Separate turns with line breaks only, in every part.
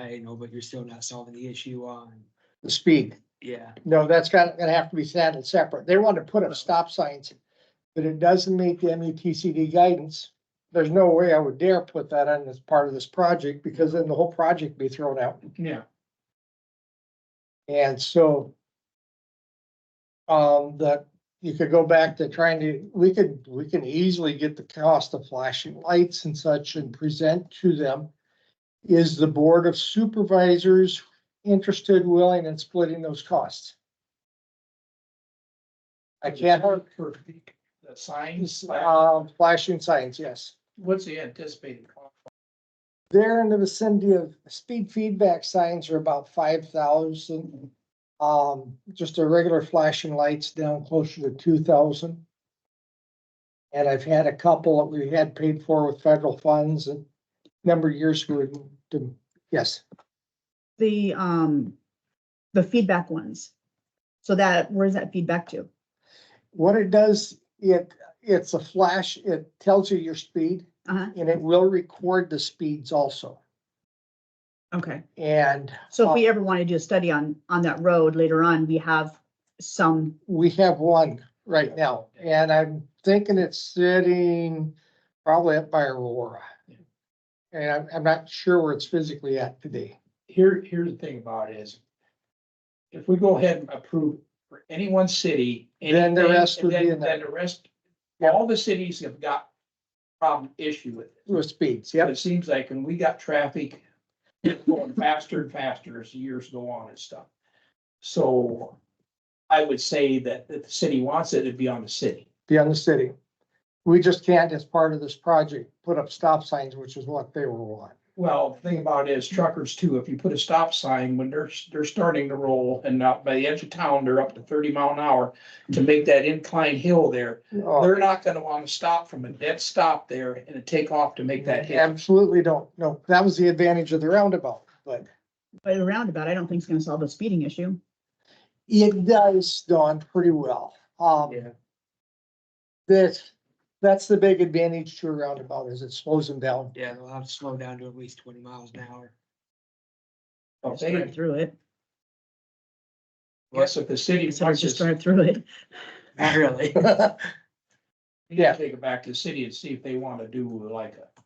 I know, but you're still not solving the issue on,
the speed.
yeah,
No, that's got, gonna have to be saddled separate. They want to put up stop signs, but it doesn't meet the E METCD guidance. There's no way I would dare put that on as part of this project because then the whole project be thrown out.
Yeah.
And so um, that you could go back to trying to, we could, we can easily get the cost of flashing lights and such and present to them. Is the Board of Supervisors interested, willing, and splitting those costs? I can't,
For the signs, like,
um, flashing signs, yes.
what's the anticipated cost?
They're in the vicinity of, speed feedback signs are about five thousand. Um, just the regular flashing lights down closer to two thousand. And I've had a couple that we had paid for with federal funds and number of years we would, do- yes,
the, um, the feedback ones. So that, where's that feedback to?
what it does, it, it's a flash, it tells you your speed.
Uh-huh.
And it will record the speeds also,
Okay.
and
So if we ever want to do a study on, on that road later on, we have some,
We have one right now, and I'm thinking it's sitting probably up by Aurora. And I'm, I'm not sure where it's physically at today.
Here, here's the thing about it is. If we go ahead and approve for any one city.
Then the
anything,
rest would be
and then-
in there.
Then the rest,
Yeah.
all the cities have got problem issue with it.
With speeds,
It
yep,
seems like when we got traffic it's going faster and faster as years go on and stuff. So I would say that if the city wants it, it'd be on the city.
beyond the city. We just can't, as part of this project, put up stop signs, which is what they were wanting.
Well, the thing about it is truckers too, if you put a stop sign when they're, they're starting to roll and not by the edge of town, they're up to thirty mile an hour to make that incline hill there,
Oh,
they're not gonna wanna stop from a dead stop there and a takeoff to make that hit.
Absolutely don't, no, that was the advantage of the roundabout, but
but a roundabout, I don't think it's going to solve a speeding issue.
it does dawn pretty well. Um,
Yeah.
that's, that's the big advantage to a roundabout is it slows them down.
yeah, they'll have to slow down to at least twenty miles an hour.
Just drive
Okay,
through it.
yes, if the city
It's hard
wants
to just
to,
drive through it.
Not really,
yeah.
take it back to the city and see if they wanna do like a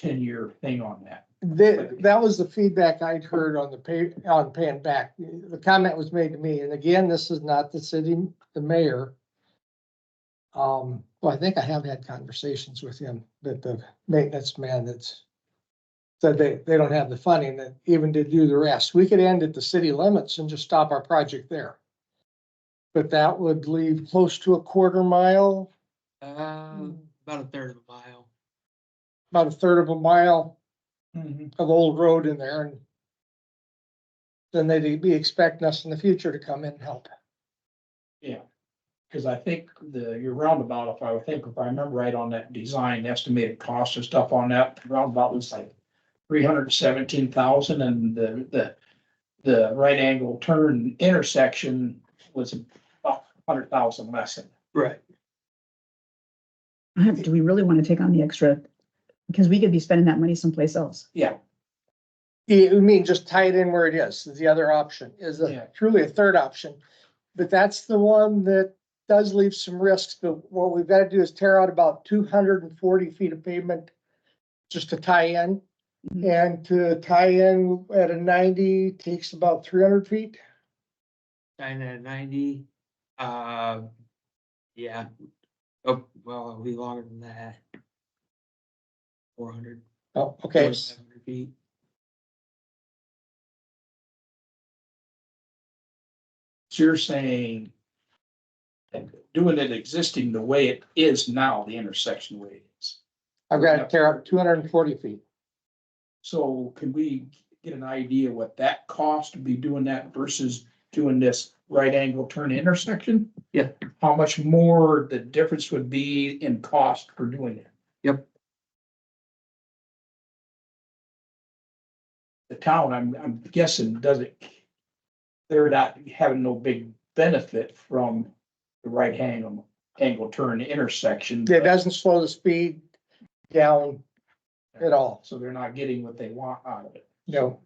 ten-year thing on that.
That, that was the feedback I'd heard on the pay, on paying back. The comment was made to me, and again, this is not the city, the mayor. Um, well, I think I have had conversations with him, that the maintenance man that's said they, they don't have the funding that even to do the rest. We could end at the city limits and just stop our project there. But that would leave close to a quarter mile,
uh, about a third of a mile.
about a third of a mile
Mm-hmm.
Mhm.
of old road in there and then they'd be expecting us in the future to come in and help.
Cause I think the, your roundabout, if I think, if I remember right on that design, estimated cost and stuff on that roundabout was like three hundred and seventeen thousand and the, the, the right angle turn intersection was about hundred thousand less. than that.
Right.
Do we really want to take on the extra? Because we could be spending that money someplace else.
Yeah,
You you mean just tie it in where it is, is the other option, is a-
Yeah.
truly a third option. But that's the one that does leave some risks, but what we've got to do is tear out about two hundred and forty feet of pavement just to tie in.
Mhm.
And to tie in at a ninety takes about three hundred feet.
Nine out of ninety, uh, yeah, oh, well, it'll be longer than that. Four hundred.
Oh, okay.
Feet,
so you're saying doing it existing the way it is now, the intersection the way it is.
I've got to tear out two hundred and forty feet.
So can we get an idea what that cost to be doing that versus doing this right angle turn intersection?
Yeah.
How much more the difference would be in cost for doing it?
Yep.
The town, I'm, I'm guessing, doesn't, they're not having no big benefit from the right angle, angle turn intersection.
It doesn't slow the speed down at all.
So they're not getting what they want out of it.
No,